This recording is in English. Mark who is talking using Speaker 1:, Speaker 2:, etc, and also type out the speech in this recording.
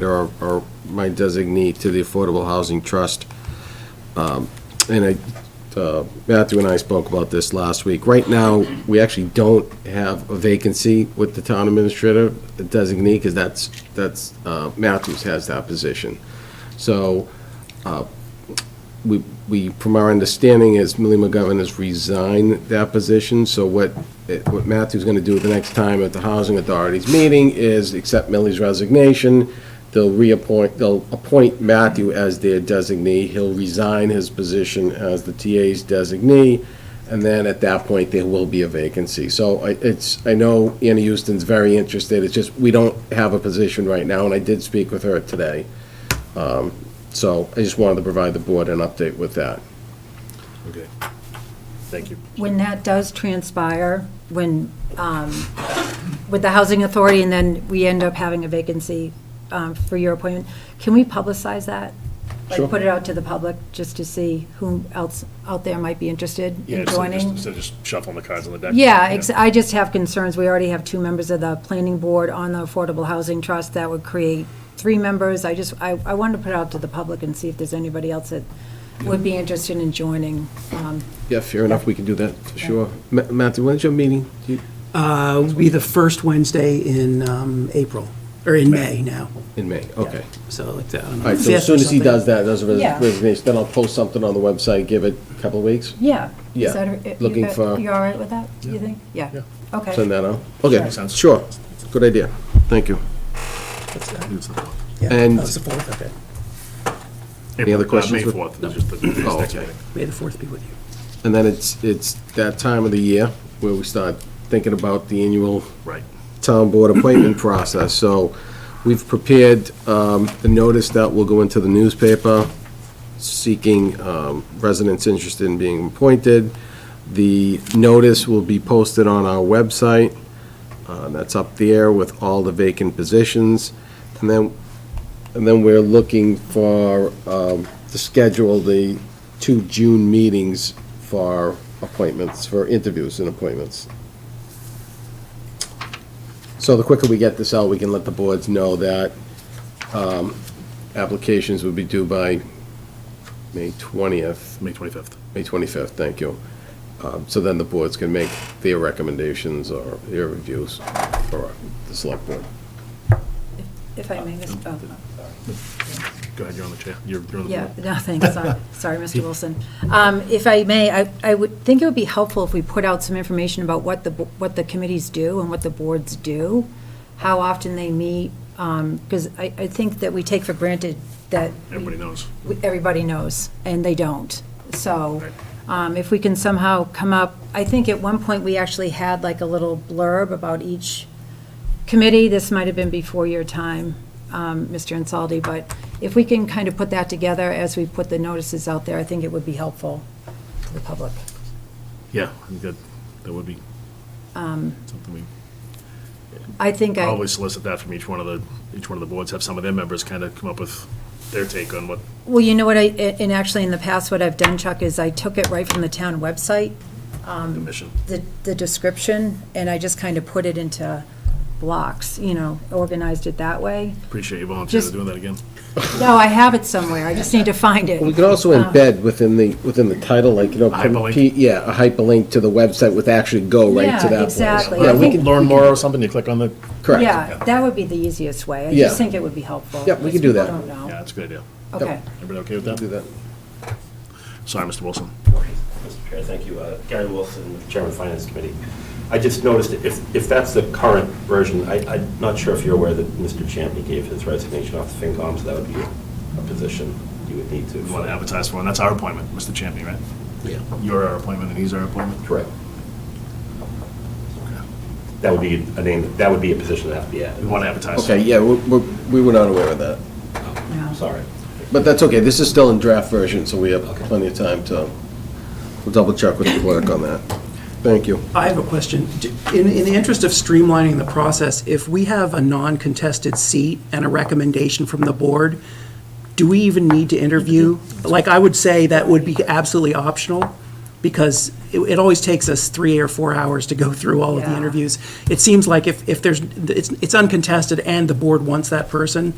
Speaker 1: They're our- our- my designee to the Affordable Housing Trust. Um, And I, uh, Matthew and I spoke about this last week. Right now, we actually don't have a vacancy with the town administrator designee, because that's, that's, uh, Matthews has that position. So we, we, from our understanding is Millie McGovern has resigned that position, so what, eh, what Matthew's gonna do the next time at the Housing Authority's meeting is accept Millie's resignation. They'll reappoint, they'll appoint Matthew as their designee. He'll resign his position as the TA's designee, and then at that point, there will be a vacancy. So I, it's, I know Anna Houston's very interested, it's just, we don't have a position right now, and I did speak with her today. So I just wanted to provide the board an update with that.
Speaker 2: Okay. Thank you.
Speaker 3: When that does transpire, when, um, with the Housing Authority, and then we end up having a vacancy um, for your appointment, can we publicize that?
Speaker 1: Sure.
Speaker 3: Like, put it out to the public, just to see who else out there might be interested
Speaker 2: Yeah,
Speaker 3: in
Speaker 2: so just-
Speaker 3: joining?
Speaker 2: So just shuffling the cards on the deck.
Speaker 3: Yeah, ex- I just have concerns. We already have two members of the planning board on the Affordable Housing Trust. That would create three members. I just, I, I wanted to put it out to the public and see if there's anybody else that would be interested in joining. Um,
Speaker 1: Yeah, fair enough, we can do that, for sure. Ma- Matthew, when's your meeting? Do you-
Speaker 4: Uh, will be the first Wednesday in um, April, or in May now.
Speaker 1: In May, okay.
Speaker 4: So like that.
Speaker 1: All right, so as soon as he does that, does a res-
Speaker 3: Yeah.
Speaker 1: resignation, then I'll post something on the website, give it a couple of weeks,
Speaker 3: Yeah.
Speaker 1: Yeah,
Speaker 3: Is that- you
Speaker 1: looking
Speaker 3: got-
Speaker 1: for-
Speaker 3: You all right with that, you think? Yeah. Okay.
Speaker 1: send that out. Okay,
Speaker 2: Sure.
Speaker 1: sure, good idea, thank you. and-
Speaker 4: That's Oh, the fourth, okay.
Speaker 1: Any other questions
Speaker 2: May
Speaker 1: with-
Speaker 2: 4th is just the
Speaker 1: Oh,
Speaker 2: next next
Speaker 1: okay.
Speaker 2: meeting.
Speaker 4: May the fourth be with you.
Speaker 1: And then it's, it's that time of the year where we start thinking about the annual
Speaker 2: Right.
Speaker 1: town board appointment process. So we've prepared um, the notice that will go into the newspaper seeking um, residents interested in being appointed. The notice will be posted on our website. uh, That's up there with all the vacant positions. And then, and then we're looking for, um, to schedule the two June meetings for appointments, for interviews and appointments. So the quicker we get this out, we can let the boards know that um, applications would be due by May 20th,
Speaker 2: May 25th.
Speaker 1: May 25th, thank you. Um, So then the boards can make their recommendations or their reviews for the select board.
Speaker 3: If I may, Mr. oh,
Speaker 2: Go ahead, you're on the chair. You're you're on the
Speaker 3: Yeah,
Speaker 2: board.
Speaker 3: no, thanks, sorry, sorry, Mr. Wilson. Um, If I may, I, I would think it would be helpful if we put out some information about what the, bo- what the committees do and what the boards do, how often they meet, because I, I think that we take for granted that
Speaker 2: Everybody knows.
Speaker 3: we- everybody knows, and they don't. So
Speaker 2: Right.
Speaker 3: um, if we can somehow come up, I think at one point, we actually had like a little blurb about each committee. This might have been before your time, um, Mr. Insaldi, but if we can kind of put that together as we put the notices out there, I think it would be helpful to the public.
Speaker 2: Yeah, I think that, that would be
Speaker 3: Um,
Speaker 2: something we
Speaker 3: I think I.
Speaker 2: always solicit that from each one of the, each one of the boards, have some of their members kind of come up with their take on what,
Speaker 3: Well, you know what, I, and actually, in the past, what I've done, Chuck, is I took it right from the town website,
Speaker 2: the mission.
Speaker 3: the, the description, and I just kind of put it into blocks, you know, organized it that way.
Speaker 2: Appreciate you volunteering to
Speaker 3: Just-
Speaker 2: doing that again.
Speaker 3: No, I have it somewhere, I just need to find
Speaker 1: We
Speaker 3: it.
Speaker 1: could also
Speaker 3: Ah.
Speaker 1: embed within the, within the title, like, you know.
Speaker 2: Hyperlink.
Speaker 1: P- Yeah, a hyperlink to the website with actually go right to
Speaker 3: Yeah,
Speaker 1: that place.
Speaker 3: exactly.
Speaker 1: Yeah, we
Speaker 3: think-
Speaker 1: could,
Speaker 2: Learn more or something, you click on the,
Speaker 1: correct.
Speaker 3: Yeah, that would be the easiest way, I
Speaker 1: Yeah.
Speaker 3: just think it would be helpful.
Speaker 1: Yeah, we
Speaker 3: can
Speaker 1: could do that.
Speaker 3: I don't
Speaker 2: yeah,
Speaker 3: know,
Speaker 2: that's a good idea.
Speaker 3: okay.
Speaker 2: Everybody okay with
Speaker 1: Do
Speaker 2: that?
Speaker 1: that.
Speaker 2: Sorry, Mr. Wilson.
Speaker 5: Mr. Chair, thank you. Uh, Gary Wilson, Chairman of Finance Committee. I just noticed, if, if that's the current version, I, I'm not sure if you're aware that Mr. Champney gave his resignation off the FinCom, so that would be a position you would need
Speaker 2: We want
Speaker 5: to.
Speaker 2: to advertise for, and that's our appointment, Mr. Champney, right?
Speaker 5: Yeah.
Speaker 2: You're our appointment and he's our appointment?
Speaker 5: Correct. That would be a name, that would be a position that would be
Speaker 2: We
Speaker 5: added.
Speaker 2: want to advertise.
Speaker 1: Okay, yeah, we, we- we were not aware of that.
Speaker 3: Yeah.
Speaker 5: Sorry.
Speaker 1: But that's okay, this is still in draft version, so we have plenty of time to, we'll double check with the clerk on that. Thank you.
Speaker 4: I have a question. D- In, in the interest of streamlining the process, if we have a non-contested seat and a recommendation from the board, do we even need to interview? Like, I would say that would be absolutely optional, because it, it always takes us three or four hours to go through all of the
Speaker 3: Yeah.
Speaker 4: interviews. It seems like if, if there's, it's, it's uncontested and the board wants that person,